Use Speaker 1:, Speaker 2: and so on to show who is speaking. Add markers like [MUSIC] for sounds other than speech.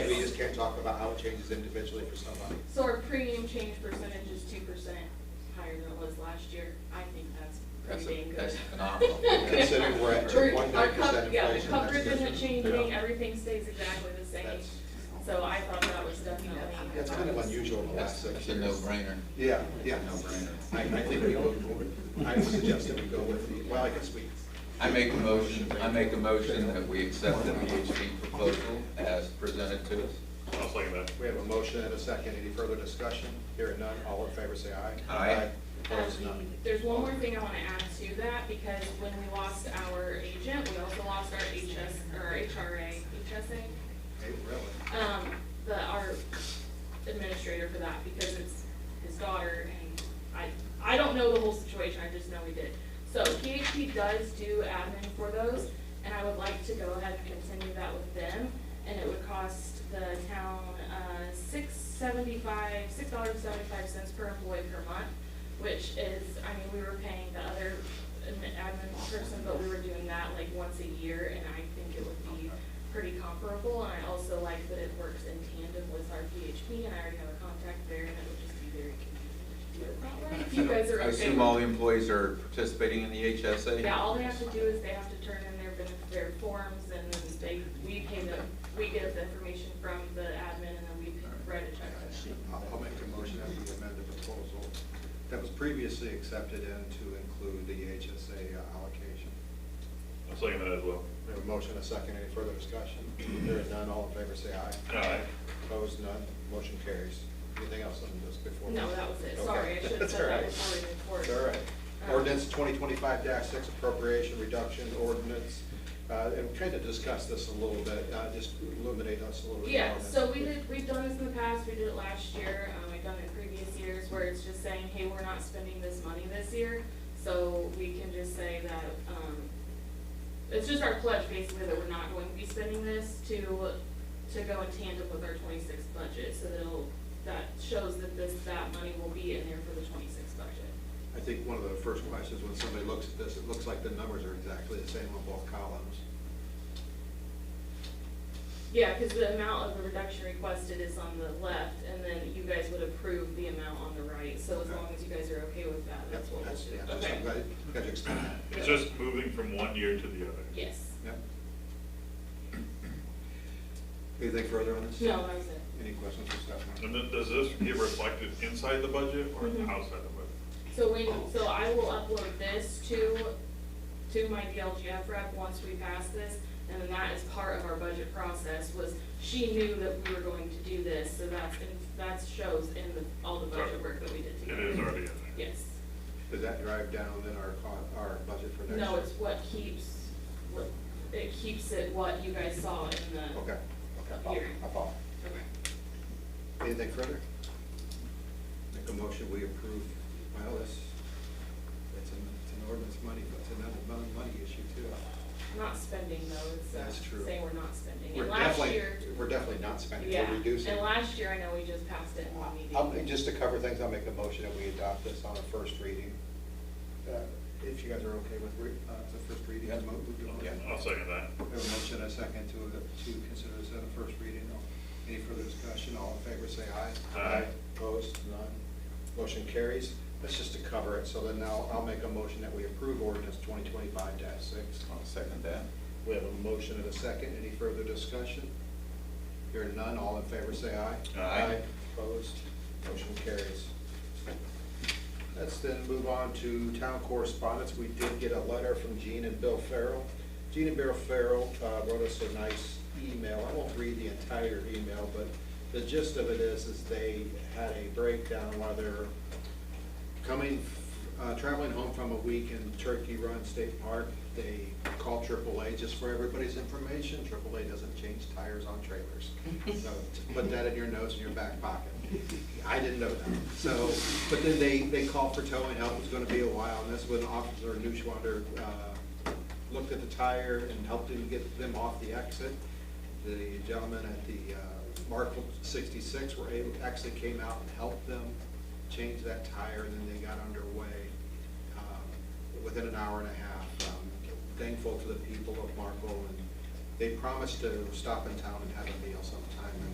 Speaker 1: can't talk about how it changes individually for somebody.
Speaker 2: So our premium change percentage is two percent higher than it was last year. I think that's
Speaker 3: That's
Speaker 2: pretty
Speaker 3: a-
Speaker 2: dang good. [LAUGHS]
Speaker 3: that's phenomenal. Considering
Speaker 1: we're at
Speaker 2: We're- our
Speaker 1: 2.9%
Speaker 2: cov- Yeah,
Speaker 1: inflation,
Speaker 2: the
Speaker 1: that's
Speaker 2: coverage
Speaker 1: good.
Speaker 2: isn't changing,
Speaker 1: Yeah.
Speaker 2: everything stays exactly the same.
Speaker 1: That's-
Speaker 2: So I thought that was definitely.
Speaker 1: That's kind of unusual in the last
Speaker 3: That's
Speaker 1: six
Speaker 3: that's a
Speaker 1: years.
Speaker 3: no-brainer.
Speaker 1: Yeah, yeah.
Speaker 3: No-brainer.
Speaker 1: I, I think we all, I would suggest that we go with the, well, I guess we,
Speaker 3: I make a motion, I make a motion that we accept the VHB proposal as presented to us.
Speaker 4: I'll second that.
Speaker 1: we have a motion and a second. Any further discussion? Hearing none, all in favor say aye.
Speaker 3: Aye.
Speaker 1: Opposed, none.
Speaker 2: There's one more thing I want to add to that, because when we lost our agent, we also lost our HS, or our HRA, HSA.
Speaker 1: Hey, really?
Speaker 2: um, the, our administrator for that, because it's his daughter, and I, I don't know the whole situation, I just know he did. So PHP does do admin for those, and I would like to go ahead and continue that with them, and it would cost the town, uh, six seventy-five, six dollars seventy-five cents per employee per month, which is, I mean, we were paying the other admin admin person, but we were doing that like once a year, and I think it would be pretty comparable, and I also like that it works in tandem with our PHP, and I already have a contact there, and it would just be very convenient to do it that way. If you guys are okay.
Speaker 3: I assume all the employees are participating in the HSA?
Speaker 2: Yeah, all they have to do is they have to turn in their, benef- their forms, and then they, we pay them, we get the information from the admin, and then we write a check to them.
Speaker 1: I'll I'll make a motion that we amend the proposal that was previously accepted and to include the HSA uh, allocation.
Speaker 4: I'll second that as well.
Speaker 1: We have a motion, a second, any further discussion? There is none, all in favor say aye.
Speaker 4: Aye.
Speaker 1: Opposed, none, motion carries. Anything else on this before? we-
Speaker 2: No, that was it. Sorry, I
Speaker 1: Okay. [LAUGHS]
Speaker 2: should have
Speaker 1: That's
Speaker 2: said that
Speaker 1: all right.
Speaker 2: before we move forward.
Speaker 1: It's all right.
Speaker 2: Um,
Speaker 1: Ordinance twenty twenty-five six appropriation reduction ordinance. Uh, and kind of discuss this a little bit, uh, just illuminate us a little bit.
Speaker 2: Yeah,
Speaker 1: more.
Speaker 2: so we did, we've done this in the past, we did it last year, um, we've done it in previous years, where it's just saying, hey, we're not spending this money this year. So we can just say that, um, it's just our pledge basically that we're not going to be spending this to, to go in tandem with our twenty-six budget. So that'll, that shows that this, that money will be in there for the twenty-six budget.
Speaker 1: I think one of the first questions when somebody looks at this, it looks like the numbers are exactly the same on both columns.
Speaker 2: Yeah, because the amount of the reduction requested is on the left, and then you guys would approve the amount on the right, so as long as you guys are okay with that, that's what we'll
Speaker 1: yeah,
Speaker 2: do.
Speaker 1: that's-
Speaker 2: Okay.
Speaker 1: I'm glad, glad you explained that.
Speaker 4: It's just moving from one year to the other.
Speaker 2: Yes.
Speaker 1: Yep. Anything further on this?
Speaker 2: No, that was it.
Speaker 1: Any questions or
Speaker 4: And
Speaker 1: stuff?
Speaker 4: then, does this get reflected inside the budget or
Speaker 2: Mhm.
Speaker 4: outside the
Speaker 2: So when, so I will upload this to, to my DLGF rep once we pass this, and then that is part of our budget process, was she knew that we were going to do this, so that's, in- that shows in the, all the budget work that we did
Speaker 4: budget?
Speaker 2: together.
Speaker 4: It is already in there.
Speaker 2: Yes.
Speaker 1: Does that drive down then our, co- our budget for next year?
Speaker 2: No, it's what keeps, what, it keeps it what you guys saw in the.
Speaker 1: Okay, okay, I follow, I follow.
Speaker 2: Okay.
Speaker 1: Anything further? Make a motion, we approve, well, this, it's an, it's an ordinance money, but it's another mon- money issue too.
Speaker 2: Not spending though, it's uh,
Speaker 1: That's true.
Speaker 2: saying we're not spending.
Speaker 1: We're
Speaker 2: And last
Speaker 1: definitely-
Speaker 2: year,
Speaker 1: We're definitely not spending,
Speaker 2: yeah,
Speaker 1: we're reducing.
Speaker 2: and last year I know we just passed it in one
Speaker 1: I'll- Uh,
Speaker 2: meeting.
Speaker 1: um, Just to cover things, I'll make a motion that we adopt this on a first reading. Uh, If you guys are okay with re- uh, the first reading. I'll move to-
Speaker 4: I'll- I'll second that.
Speaker 1: We have a motion and a second to, to consider this at a first reading. Any further discussion? All in favor, say aye.
Speaker 4: Aye.
Speaker 1: Opposed? None. Motion carries. That's just to cover it. So then now I'll make a motion that we approve ordinance twenty twenty-five six.
Speaker 3: I'll second that.
Speaker 1: We have a motion and a second. Any further discussion? Hearing none, all in favor, say aye.
Speaker 3: Aye.
Speaker 1: Opposed? Motion carries. Let's then move on to town correspondence. We did get a letter from Gene and Bill Farrell. Gene and Bill Farrell uh, wrote us a nice email. I won't read the entire email, but the gist of it is, is they had a breakdown while they're coming, uh, traveling home from a week in Turkey Run State Park. They called AAA just for everybody's information. AAA doesn't change tires on trailers. So just put that in your notes in your back pocket. I didn't know that. So, but then they, they called for towing help. It was gonna be a while. And that's when Officer Newschwander, uh, looked at the tire and helped him get them off the exit. The gentlemen at the uh, Markle 66 were able, actually came out and helped them change that tire, and then they got underway um, within an hour and a half. Um, Thankful to the people of Markle, and they promised to stop in town and have a meal sometime, and